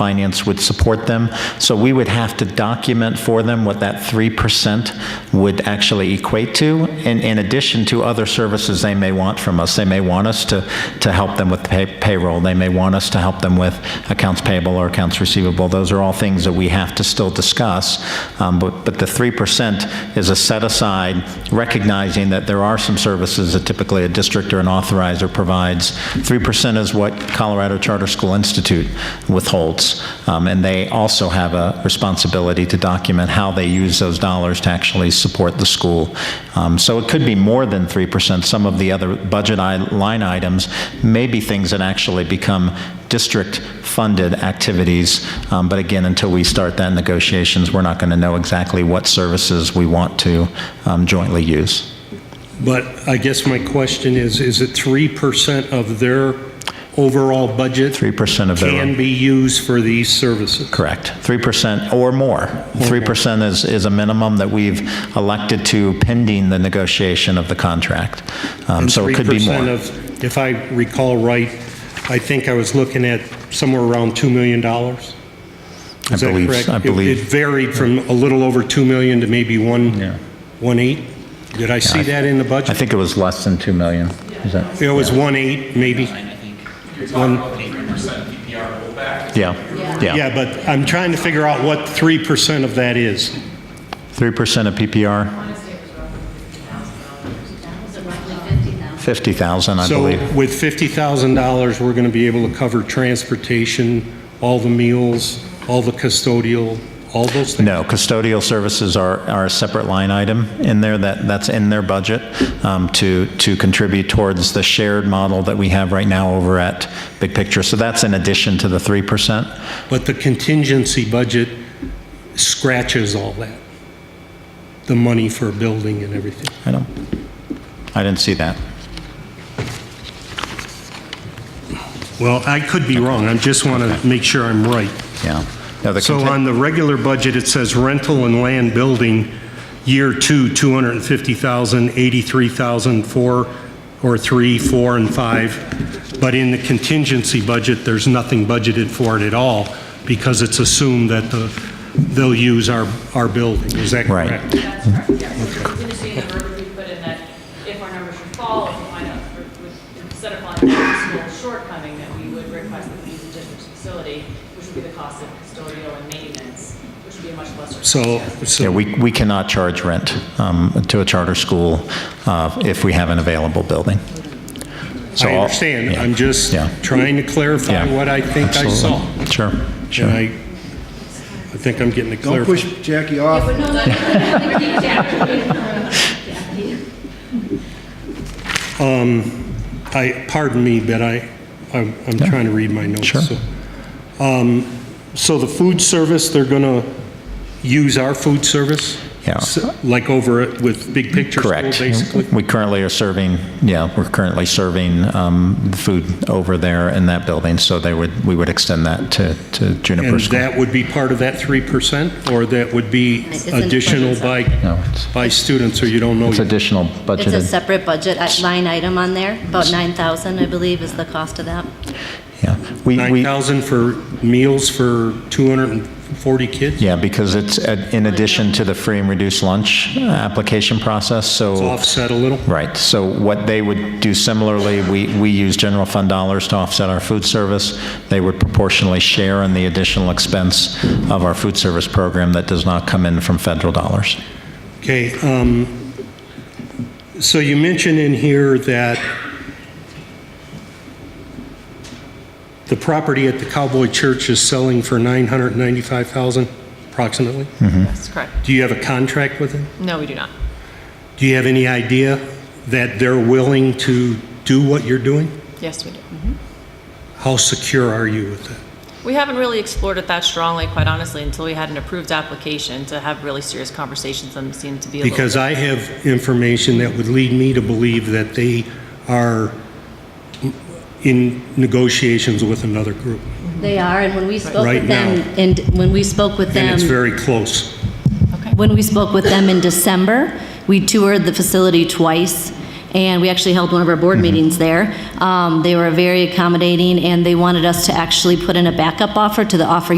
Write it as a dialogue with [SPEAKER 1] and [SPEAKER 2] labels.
[SPEAKER 1] finance would support them. So we would have to document for them what that 3% would actually equate to, in, in addition to other services they may want from us. They may want us to, to help them with pay- payroll, they may want us to help them with accounts payable or accounts receivable. Those are all things that we have to still discuss. Um, But, but the 3% is a set aside, recognizing that there are some services that typically a district or an authorizer provides. 3% is what Colorado Charter School Institute withholds, Um, and they also have a responsibility to document how they use those dollars to actually support the school. Um, So it could be more than 3%. Some of the other budget i- line items may be things that actually become district-funded activities, Um, but again, until we start that negotiations, we're not going to know exactly what services we want to um, jointly use.
[SPEAKER 2] But I guess my question is, is it 3% of their overall budget?
[SPEAKER 1] 3% of their-
[SPEAKER 2] Can be used for these services?
[SPEAKER 1] Correct. 3% or more. 3% is, is a minimum that we've elected to pending the negotiation of the contract. Um, So it could be
[SPEAKER 2] 3%
[SPEAKER 1] more.
[SPEAKER 2] of, if I recall right, I think I was looking at somewhere around $2 million? Is
[SPEAKER 1] I
[SPEAKER 2] that
[SPEAKER 1] believe-
[SPEAKER 2] correct?
[SPEAKER 1] I
[SPEAKER 2] It-
[SPEAKER 1] believe-
[SPEAKER 2] It varied from a little over 2 million to maybe 1, 1.8? Did I see that in the budget?
[SPEAKER 1] I think it was less than 2 million. Is that?
[SPEAKER 2] It was 1.8, maybe?
[SPEAKER 3] You're talking about the 3% PPR rollback.
[SPEAKER 1] Yeah, yeah.
[SPEAKER 2] Yeah, but I'm trying to figure out what 3% of that is.
[SPEAKER 1] 3% of PPR,
[SPEAKER 4] Was it roughly 50,000?
[SPEAKER 1] 50,000, I
[SPEAKER 2] So
[SPEAKER 1] believe.
[SPEAKER 2] with $50,000, we're going to be able to cover transportation, all the meals, all the custodial, all those things?
[SPEAKER 1] No, custodial services are, are a separate line item in there, that, that's in their budget um, to, to contribute towards the shared model that we have right now over at Big Picture. So that's in addition to the 3%.
[SPEAKER 2] But the contingency budget scratches all that, the money for a building and everything.
[SPEAKER 1] I don't, I didn't see that.
[SPEAKER 2] Well, I could be wrong, I just want to make sure I'm right.
[SPEAKER 1] Yeah. No, the
[SPEAKER 2] So
[SPEAKER 1] conti-
[SPEAKER 2] on the regular budget, it says rental and land building, year two, 250,000, 83,000, four, or three, four, and five. But in the contingency budget, there's nothing budgeted for it at all because it's assumed that the, they'll use our, our building. Is that
[SPEAKER 1] Right.
[SPEAKER 2] correct?
[SPEAKER 5] That's correct, yes. So contingency in the verbiage we put in that if our numbers should fall, if we find out, for- with- instead of finding out school shortcoming, that we would request that we use the district's facility, which would be the cost of custodial and maintenance, which would be a much lesser.
[SPEAKER 2] So,
[SPEAKER 1] Yeah,
[SPEAKER 2] so,
[SPEAKER 1] we, we cannot charge rent um, to a charter school uh, if we have an available building. So
[SPEAKER 2] I
[SPEAKER 1] I'll-
[SPEAKER 2] understand.
[SPEAKER 1] yeah,
[SPEAKER 2] I'm just
[SPEAKER 1] yeah,
[SPEAKER 2] trying to clarify
[SPEAKER 1] yeah,
[SPEAKER 2] what I think I saw.
[SPEAKER 1] absolutely. Sure,
[SPEAKER 2] And I,
[SPEAKER 1] sure.
[SPEAKER 2] I think I'm getting it
[SPEAKER 6] Don't
[SPEAKER 2] clarified.
[SPEAKER 6] push Jackie off.
[SPEAKER 4] No, no, no, no, Jackie.
[SPEAKER 2] I, pardon me, but I, I'm I'm trying to read my notes.
[SPEAKER 1] Sure.
[SPEAKER 2] so. Um, So the food service, they're going to use our food service?
[SPEAKER 1] Yeah.
[SPEAKER 2] S- Like over at- with Big Picture School,
[SPEAKER 1] Correct.
[SPEAKER 2] basically?
[SPEAKER 1] We currently are serving, yeah, we're currently serving um, food over there in that building, so they would, we would extend that to, to Juniper
[SPEAKER 2] And
[SPEAKER 1] School.
[SPEAKER 2] that would be part of that 3%? Or that would be
[SPEAKER 4] It's in
[SPEAKER 2] additional
[SPEAKER 4] budget.
[SPEAKER 2] by,
[SPEAKER 1] No, it's-
[SPEAKER 2] by students, or you don't know
[SPEAKER 1] It's
[SPEAKER 2] yet?
[SPEAKER 1] additional
[SPEAKER 4] It's a
[SPEAKER 1] budgeted,
[SPEAKER 4] separate budget i- line item on there, about 9,000, I believe, is the cost of that.
[SPEAKER 1] yeah. We- we-
[SPEAKER 2] 9,000 for meals for 240 kids?
[SPEAKER 1] Yeah, because it's uh, in addition to the free and reduced lunch uh, application process, so,
[SPEAKER 2] Offset a little?
[SPEAKER 1] right. So what they would do similarly, we, we use general fund dollars to offset our food service. They would proportionally share in the additional expense of our food service program that does not come in from federal dollars.
[SPEAKER 2] Okay, um, so you mentioned in here that the property at the Cowboy Church is selling for 995,000 approximately?
[SPEAKER 5] That's correct.
[SPEAKER 2] Do you have a contract with them?
[SPEAKER 5] No, we do not.
[SPEAKER 2] Do you have any idea that they're willing to do what you're doing?
[SPEAKER 5] Yes, we do. Mm-hmm.
[SPEAKER 2] How secure are you with that?
[SPEAKER 5] We haven't really explored it that strongly, quite honestly, until we had an approved application to have really serious conversations, and it seemed to be a little...
[SPEAKER 2] Because I have information that would lead me to believe that they are in negotiations with another group,
[SPEAKER 4] They are, and when we spoke
[SPEAKER 2] Right
[SPEAKER 4] with them,
[SPEAKER 2] now.
[SPEAKER 4] and when we spoke with them...
[SPEAKER 2] and it's very close.
[SPEAKER 5] Okay.
[SPEAKER 4] When we spoke with them in December, we toured the facility twice, and we actually held one of our
[SPEAKER 2] Mm-hmm.
[SPEAKER 4] board meetings there. Um, They were very accommodating, and they wanted us to actually put in a backup offer to the offer